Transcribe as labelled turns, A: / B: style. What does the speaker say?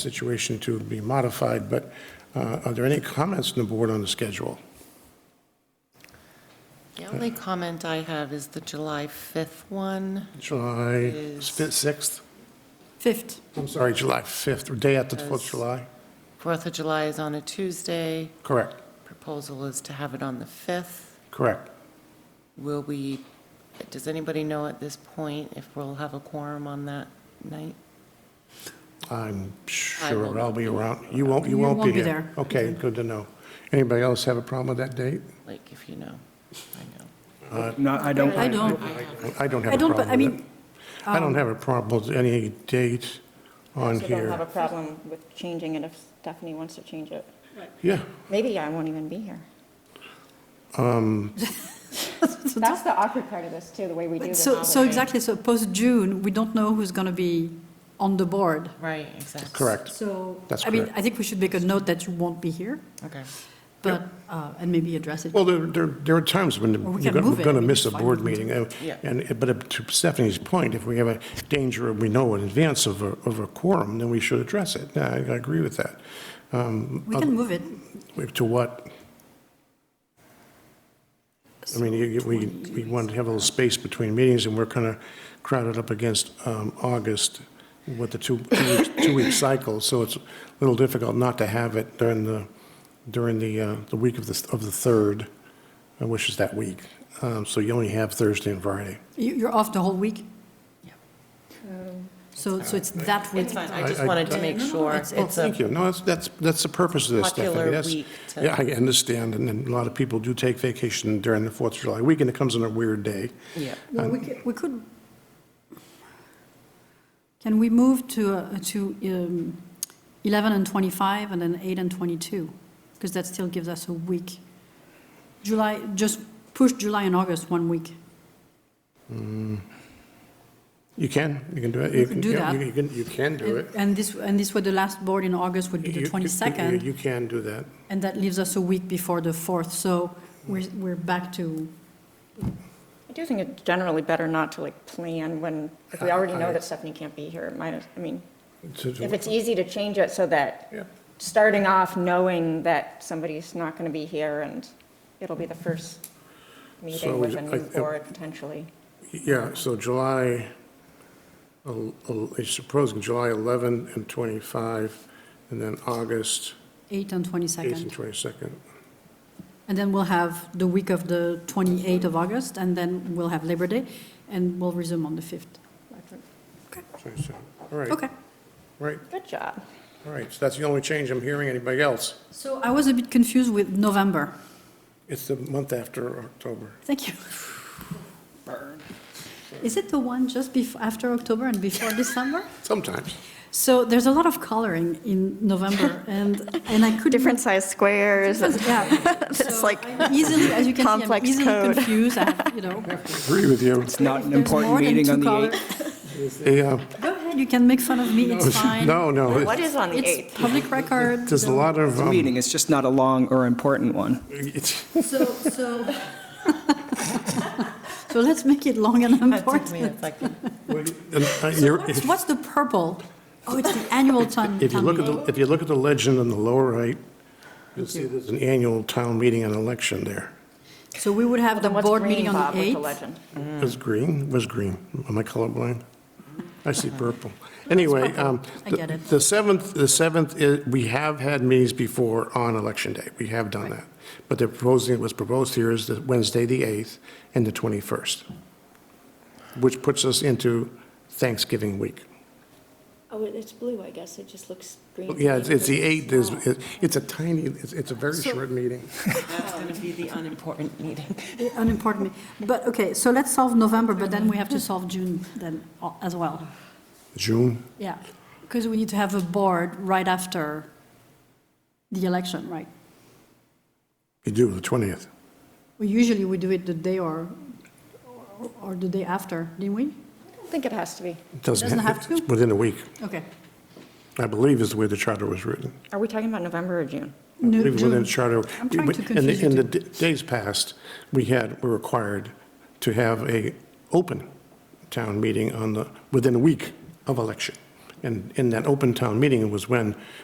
A: situation to be modified, but uh, are there any comments from the board on the schedule?
B: The only comment I have is the July 5th one.
A: July
B: Is-
A: 6th?
C: Fifth,
A: I'm sorry, July 5th, or day after the 4th of
B: Yes.
A: July?
B: Fourth of July is on a Tuesday.
A: Correct,
B: Proposal is to have it on the 5th.
A: correct.
B: Will we, does anybody know at this point if we'll have a quorum on that night?
A: I'm
B: I will
A: sure I'll
B: not
A: be
B: be
A: around. You won't, you won't be here. Okay, good to know. Anybody else have a problem with that date?
B: Like, if you know, I know.
D: No, I don't.
C: I don't,
A: I don't have
C: I
A: a
C: don't, but I
A: problem with
C: mean,
A: it. I don't have a problem with any date on
E: So don't have a
A: here.
E: problem with changing it if Stephanie wants to change it.
A: Yeah,
E: Maybe I won't even be here.
A: Um,
E: That's the awkward part of this too, the way we do the
C: so, so
E: holiday.
C: exactly, so post-June, we don't know who's going to be on the board.
B: Right, exactly.
A: correct.
C: So,
A: That's
C: I mean,
A: correct.
C: I think we should make a note that you won't be here,
B: Okay.
C: but, uh, and maybe address it.
A: Well, there, there, there are times when
C: Or we
A: you're
C: can
A: gonna-
C: move
A: we're
C: it.
A: going to
C: We
A: miss a
C: can find
A: board
C: it.
A: meeting. uh,
B: Yeah.
A: And, but to Stephanie's point, if we have a danger, we know in advance of a, of a quorum, then we should address it. Yeah, I I agree with that.
C: We
A: um,
C: can move it.
A: To what? I mean, you- you- we, we want to have a little space between meetings, and we're kind of crowded up against um, August with the two, two-week- two-week cycle, so it's a little difficult not to have it during the, during the, uh, the week of the, of the 3rd, uh, which is that week. Um, So you only have Thursday and Friday.
C: You- You're off the whole week? So, so it's that week.
B: It's fine, I just
A: I- I-
B: wanted to make sure. It's
A: Oh,
B: a
A: thank you. No, that's, that's, that's the purpose of this, Stephanie.
B: Popular
A: That's-
B: week to-
A: Yeah, I understand, and then a lot of people do take vacation during the Fourth of July weekend. It comes on a weird day.
B: Yeah.
C: Well, we could, we could, can we move to, uh, to um, 11 and 25 and then 8 and 22? Because that still gives us a week. July, just push July and August one week.
A: You can, you can do it.
C: You can do
A: yeah,
C: that.
A: You can, you can do it.
C: And this, and this would, the last board in August would be
A: You-
C: the
A: you-
C: 22nd,
A: You can do that.
C: and that leaves us a week before the 4th. So we're, we're back to,
E: I do think it's generally better not to like plan when, if we already know that Stephanie can't be here, might as, I mean,
A: To do
E: if
A: it.
E: it's easy to change it so that,
A: Yeah.
E: starting off knowing that somebody's not going to be here and it'll be the first
A: So
E: meeting with a new
A: I- I-
E: board potentially.
A: Yeah, so July, el- el- I suppose July 11 and 25, and then August
C: 8 and
A: 8th and
C: 22nd.
A: 22nd.
C: And then we'll have the week of the 28th of August, and then we'll have Labor Day, and we'll resume on the 5th.
A: 22nd. All right,
C: Okay.
A: right,
E: Good job.
A: all right. So that's the only change I'm hearing. Anybody else?
C: So I was a bit confused with November.
A: It's the month after October.
C: Thank you. Is it the one just bef after October and before December?
A: Sometimes.
C: So there's a lot of coloring in November, and, and I couldn't.
E: Different size squares.
C: Yeah.
E: It's
C: So
E: like
C: I'm Easily, as you can see, I'm
E: complex
C: easily
E: code.
C: confused, I have, you know.
A: Agree with you.
D: It's not an
C: there's
D: important
C: more than
D: meeting
C: two
D: on the
C: color-
D: 8th.
A: Yeah.
C: Go ahead, you can make fun of me, it's fine.
A: No, no. it-
E: What is on the 8th?
C: It's public record.
A: There's a
C: so-
A: lot of,
D: It's a
A: um,
D: meeting, it's just not a long or important one.
A: it's,
C: So, so. So let's make it long and
B: That took me
C: important.
B: a second.
A: and, uh, you're-
C: What's what's the purple? Oh, it's the annual town.
A: If you
C: town
A: look at
C: meeting.
A: the, if you look at the legend on the lower right, you'll see there's an annual town meeting and election there.
C: So we would have the
E: Then what's
C: board
E: green,
C: meeting on
E: Bob,
C: the
E: with
C: 8th.
E: legend?
C: Mm.
A: Was green, was green. Am I colorblind? I see purple. Anyway, um,
C: I
A: the-
C: get it.
A: the 7th, the 7th, is- we have had meetings before on election day. We have done that. But they're proposing, what's proposed here is the Wednesday, the 8th, and the 21st, which puts us into Thanksgiving week.
F: Oh, it- it's blue, I guess, it just looks green.
A: Yeah, it's it's the 8th, is- it- it's a tiny, it's it's a very short meeting.
B: That's going to be the unimportant meeting.
C: Uh, Unimportant. me- But, okay, so let's solve November, but then we have to solve June then uh, as well.
A: June?
C: Yeah, because we need to have a board right after the election, right?
A: You do, the 20th.
C: We Usually we do it the day or, or- or the day after, didn't we?
E: I don't think it has to be.
C: Doesn't have to?
A: it's Within a week,
C: Okay.
A: I believe is the way the charter was written.
E: Are we talking about November or June?
A: I
C: No,
A: believe Within the
C: June.
A: charter.
C: I'm trying to
A: in the-
C: confuse you
A: In the d- days past, we had, were required to have a open town meeting on the, within a week of election. And in that open town meeting was when